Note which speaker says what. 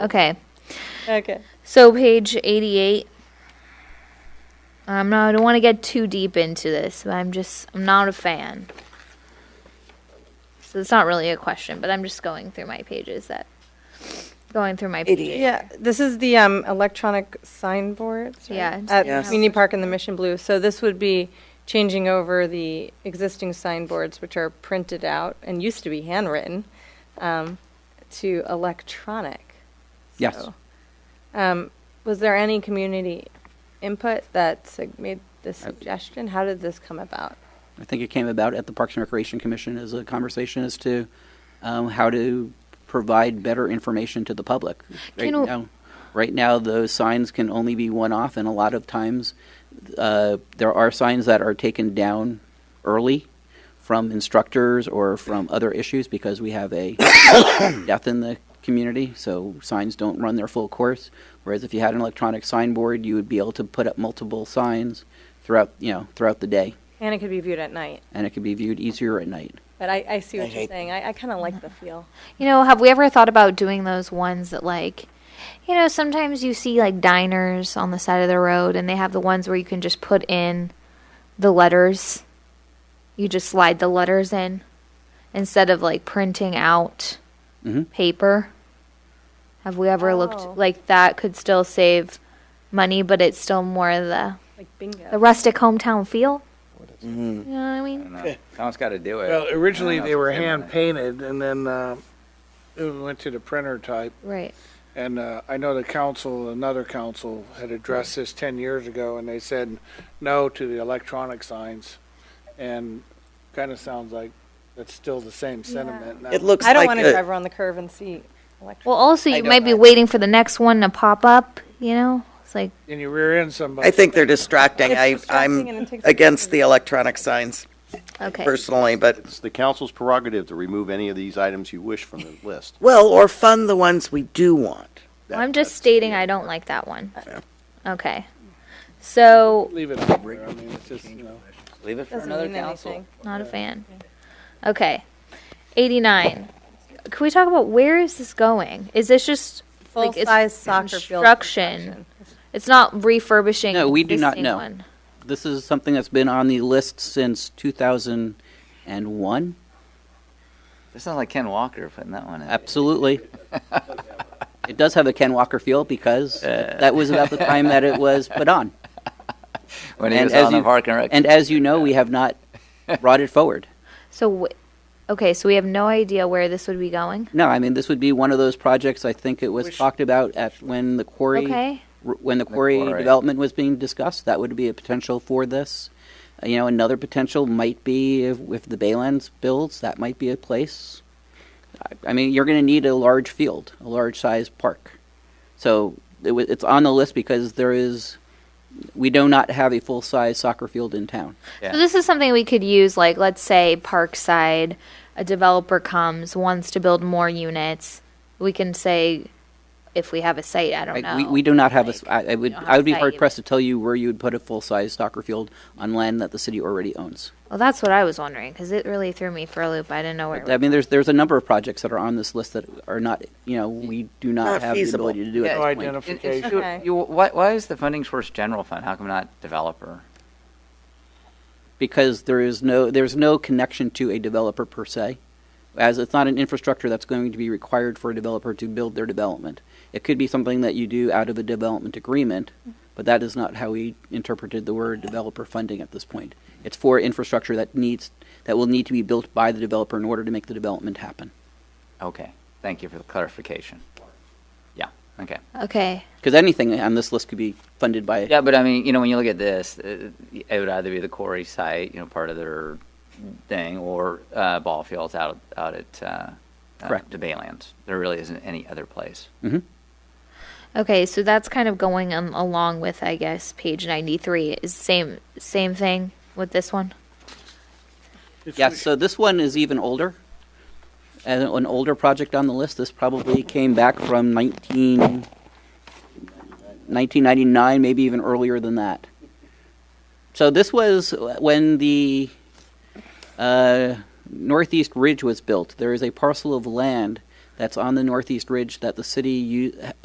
Speaker 1: Okay.
Speaker 2: Okay.
Speaker 1: So page 88. Um, no, I don't want to get too deep into this, but I'm just I'm not a fan. So it's not really a question, but I'm just going through my pages that going through my pages.
Speaker 2: Yeah, this is the um, electronic signboards. right?
Speaker 1: Yeah, it's
Speaker 2: At
Speaker 3: Yes.
Speaker 2: Community Park and the Mission Blue. So this would be changing over the existing signboards, which are printed out and used to be handwritten, um, to electronic.
Speaker 3: Yes.
Speaker 2: So, um, Was there any community input that sug- made this suggestion? How did this come about?
Speaker 3: I think it came about at the Parks and Recreation Commission as a conversation as to um, how to provide better information to the public. Right
Speaker 1: Can o-
Speaker 3: now, right now, those signs can only be one off, and a lot of times uh, there are signs that are taken down early from instructors or from other issues because we have a death in the community, so signs don't run their full course. Whereas if you had an electronic signboard, you would be able to put up multiple signs throughout, you know, throughout the day
Speaker 2: And it could be viewed at night.
Speaker 3: and it can be viewed easier at night.
Speaker 2: But I, I see
Speaker 4: I
Speaker 2: what you're
Speaker 4: hate
Speaker 2: saying. I, I kind of like the feel.
Speaker 1: You know, have we ever thought about doing those ones that like you know, sometimes you see like diners on the side of the road and they have the ones where you can just put in the letters. You just slide the letters in instead of like printing out
Speaker 3: Mhm.
Speaker 1: paper. Have we ever
Speaker 2: Oh.
Speaker 1: looked like that could still save money, but it's still more the
Speaker 2: Like bingo.
Speaker 1: the rustic hometown feel? You know what I mean?
Speaker 5: No, uh, Someone's got to do it.
Speaker 6: Well, originally
Speaker 5: I don't know
Speaker 6: they
Speaker 5: if
Speaker 6: were
Speaker 5: it's him or
Speaker 6: hand
Speaker 5: not.
Speaker 6: painted and then uh, it went to the printer type.
Speaker 1: Right.
Speaker 6: And uh, I know the council, another council, had addressed this 10 years ago and they said no to the electronic signs. And kind of sounds like that's still the same sentiment. now.
Speaker 4: It looks
Speaker 2: I don't
Speaker 4: like
Speaker 2: want
Speaker 4: a-
Speaker 2: to drive around the curve and see electronic.
Speaker 1: Well, also you
Speaker 4: don't
Speaker 1: might be
Speaker 4: know.
Speaker 1: waiting for the next one to pop up, you know? It's like
Speaker 6: And you rear end somebody.
Speaker 4: I think they're distracting.
Speaker 2: It's
Speaker 4: I,
Speaker 2: distracting and
Speaker 4: I'm
Speaker 2: it takes-
Speaker 4: against the electronic signs
Speaker 1: okay.
Speaker 4: personally, but,
Speaker 7: It's the council's prerogative to remove any of these items you wish from the list.
Speaker 4: well, or fund the ones we do want.
Speaker 1: Well, I'm just stating I don't like that one. Okay. So,
Speaker 6: Leave it up there. I mean, it's just, you know.
Speaker 5: Leave it for
Speaker 2: Doesn't
Speaker 5: another
Speaker 2: mean
Speaker 5: council.
Speaker 2: anything.
Speaker 1: not a fan. Okay. 89. Can we talk about where is this going? Is this just like it's
Speaker 2: Full-size soccer field
Speaker 1: construction? It's not refurbishing.
Speaker 3: No, we do not
Speaker 1: existing
Speaker 3: know.
Speaker 1: one.
Speaker 3: This is something that's been on the list since 2001.
Speaker 5: This sounds like Ken Walker putting that one in.
Speaker 3: Absolutely. it does have the Ken Walker feel because that was about the time that it was put on.
Speaker 5: When he
Speaker 3: And
Speaker 5: was
Speaker 3: as
Speaker 5: on the
Speaker 3: you-
Speaker 5: Park and Rec.
Speaker 3: And as you know, we have not brought it forward.
Speaker 1: So, wh- okay, so we have no idea where this would be going.
Speaker 3: No, I mean this would be one of those projects. I think it was talked about at when the quarry,
Speaker 1: Okay.
Speaker 3: r- when the quarry,
Speaker 5: quarry.
Speaker 3: development was being discussed. That would be a potential for this. Uh, You know, another potential might be if, if the Baylands builds, that might be a place. I, I mean, you're going to need a large field, a large sized park. So it, wa- it's on the list because there is, we do not have a full size soccer field in town.
Speaker 5: Yeah.
Speaker 1: So this is something we could use, like let's say Parkside, a developer comes, wants to build more units. We can say, if we have a site, I don't
Speaker 3: Like,
Speaker 1: know.
Speaker 3: we, we do not have a s I I would,
Speaker 1: don't have
Speaker 3: I would be
Speaker 1: site.
Speaker 3: hard pressed to tell you where you would put a full size soccer field on land that the city already owns.
Speaker 1: Well, that's what I was wondering because it really threw me for a loop. I didn't know where.
Speaker 3: I mean, there's there's a number of projects that are on this list that are not, you know, we do not,
Speaker 4: Not
Speaker 3: have
Speaker 4: feasible.
Speaker 3: the ability to do
Speaker 5: Yeah,
Speaker 3: at
Speaker 6: No
Speaker 3: this point.
Speaker 5: It- it's
Speaker 6: identification.
Speaker 5: you-
Speaker 2: Okay.
Speaker 5: you- why, why is the funding source general fund? How come not developer?
Speaker 3: because there is no there's no connection to a developer per se, as it's not an infrastructure that's going to be required for a developer to build their development. It could be something that you do out of a development agreement, but that is not how we interpreted the word developer funding at this point. It's for infrastructure that needs that will need to be built by the developer in order to make the development happen.
Speaker 5: Okay. Thank you for the clarification. Yeah. Okay.
Speaker 1: Okay,
Speaker 3: Because anything on this list could be funded by
Speaker 5: Yeah, but I mean, you know, when you look at this, uh, it would either be the quarry site, you know, part of their thing, or uh, ball fields out out at uh,
Speaker 3: Correct.
Speaker 5: uh, the Baylands. There really isn't any other place.
Speaker 3: mm-hmm.
Speaker 1: okay, so that's kind of going um, along with, I guess, page ninety-three is same same thing with this one.
Speaker 3: Yes, so this one is even older, and an older project on the list. This probably came back from 19, 1999, maybe even earlier than that. So this was when the uh, Northeast Ridge was built. There is a parcel of land that's on the northeast ridge that the city u-